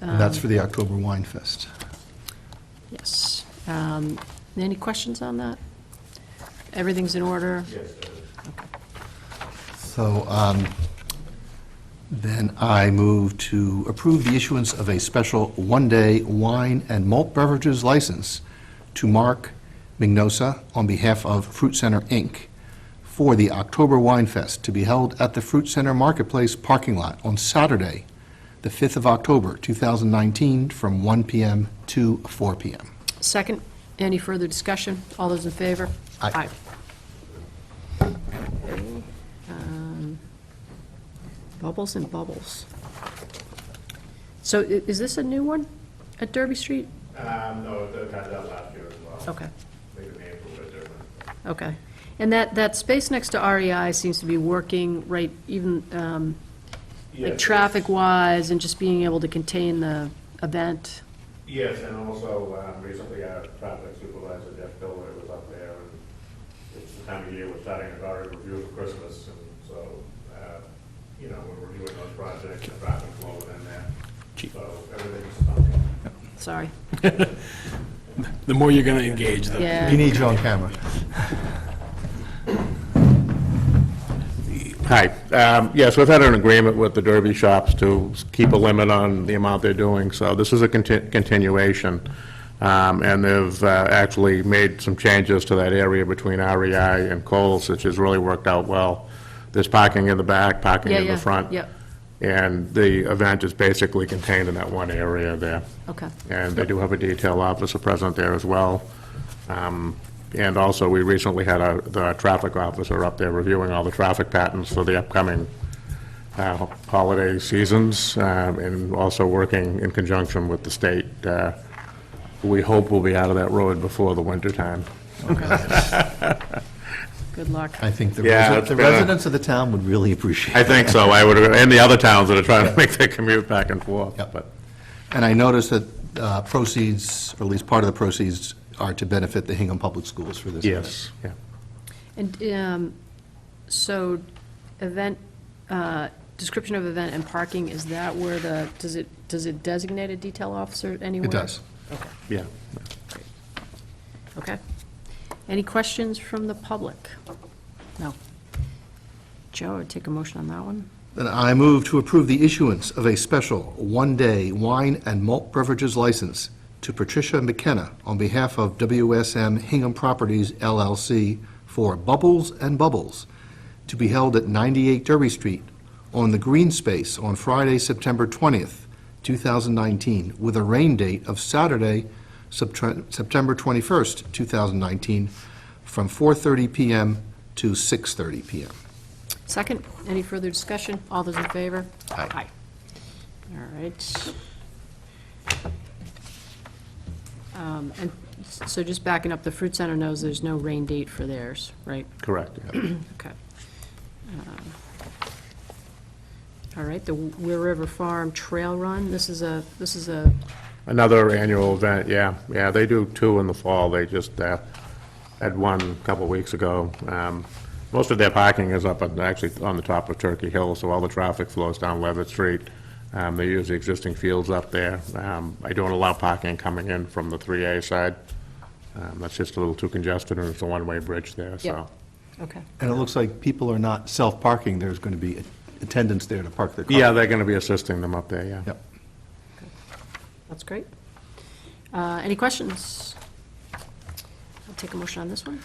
And Uh, that's for the October Wine Fest. Yes. Um, Any questions on that? Everything's in order? So um, then I move to approve the issuance of a special one-day wine and malt beverages license to Mark Mignosa on behalf of Fruit Center, Inc., for the October Wine Fest to be held at the Fruit Center Marketplace parking lot on Saturday, the 5th of October, 2019, from 1 PM to 4 PM. Second, any further discussion? All those in favor? Aye. Aye. Um, Bubbles and bubbles. So i- is this a new one at Derby Street? Um, no, it had that last year as well. Okay, I think the name's a little bit different. okay. And that, that space next to REI seems to be working right, even, um, Yes, like yes. traffic-wise and just being able to contain the event. Yes, and also, um, recently our traffic supervisor, Jeff Biller, was up there, and it's the time of year we're starting to our review for Christmas, and so, uh, you know, we're reviewing those projects, and traffic flow within that, so everything's on. Sorry. The more you're going to engage, the Yeah. We need you on camera. Hi. Um, Yes, we've had an agreement with the Derby shops to keep a limit on the amount they're doing, so this is a conti- continuation. Um, And they've uh, actually made some changes to that area between REI and Coles, which has really worked out well. There's parking in the back, parking Yeah, in the yeah, front. yep. And the event is basically contained in that one area there. Okay. And they do have a detail officer present there as well. Um, And also, we recently had our- the traffic officer up there reviewing all the traffic patterns for the upcoming uh, holiday seasons, um, and also working in conjunction with the state. uh, We hope we'll be out of that road before the wintertime. Good luck. I think the Yeah, resi- it's the been a- residents of the town would really appreciate it. I think so, I would, and the other towns that are trying to make their commute back and forth, Yep. but, And I noticed that uh, proceeds, or at least part of the proceeds, are to benefit the Hingham Public Schools for this. event. yes, yeah. And um, so event, uh, description of event and parking, is that where the, does it, does it designate a detail officer anywhere? It does. Okay, yeah. okay. Any questions from the public? No. Joe, I'd take a motion on that one. Then I move to approve the issuance of a special one-day wine and malt beverages license to Patricia McKenna on behalf of WSM Hingham Properties LLC for Bubbles and Bubbles to be held at 98 Derby Street on the green space on Friday, September 20th, 2019, with a rain date of Saturday, Septre- September 21st, 2019, from 4:30 PM to 6:30 PM. Second, any further discussion? All those in favor? Aye. All right. Um, And so just backing up, the Fruit Center knows there's no rain date for theirs, right? Correct, yeah. Okay. Um, All right, the Weir River Farm Trail Run, this is a, this is a, Another annual event, yeah, yeah, they do two in the fall, they just uh, had one a couple weeks ago. Um, Most of their parking is up, on- actually, on the top of Turkey Hill, so all the traffic flows down Levitt Street. Um, They use the existing fields up there. Um, I don't allow parking coming in from the 3A side. Um, That's just a little too congested, and it's a one-way bridge there, yeah, so. okay, And it looks like people are not self-parking, there's going to be attendants there to park their car. Yeah, they're going to be assisting them up there, yeah. Yep. that's great. Uh, Any questions? I'll take a motion on this one.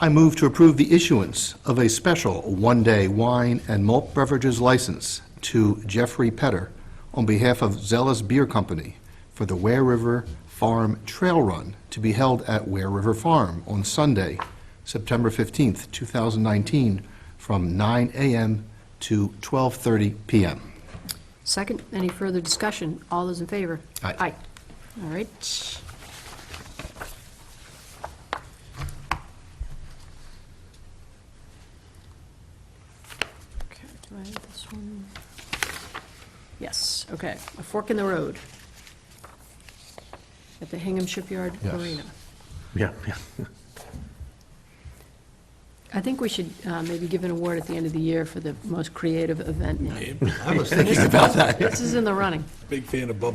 I move to approve the issuance of a special one-day wine and malt beverages license to Jeffrey Petter on behalf of Zealous Beer Company for the Ware River Farm Trail Run to be held at Ware River Farm on Sunday, September 15th, 2019, from 9 a.m. to 12:30 p.m. Second, any further discussion? All those in favor? Aye. All right. Okay, do I have this one? Yes, okay, a fork in the road at the Hingham Shipyard Yes. Arena. Yeah, yeah. I think we should uh, maybe give an award at the end of the year for the most creative event name. I was thinking about that. This is in the running. big fan of bubble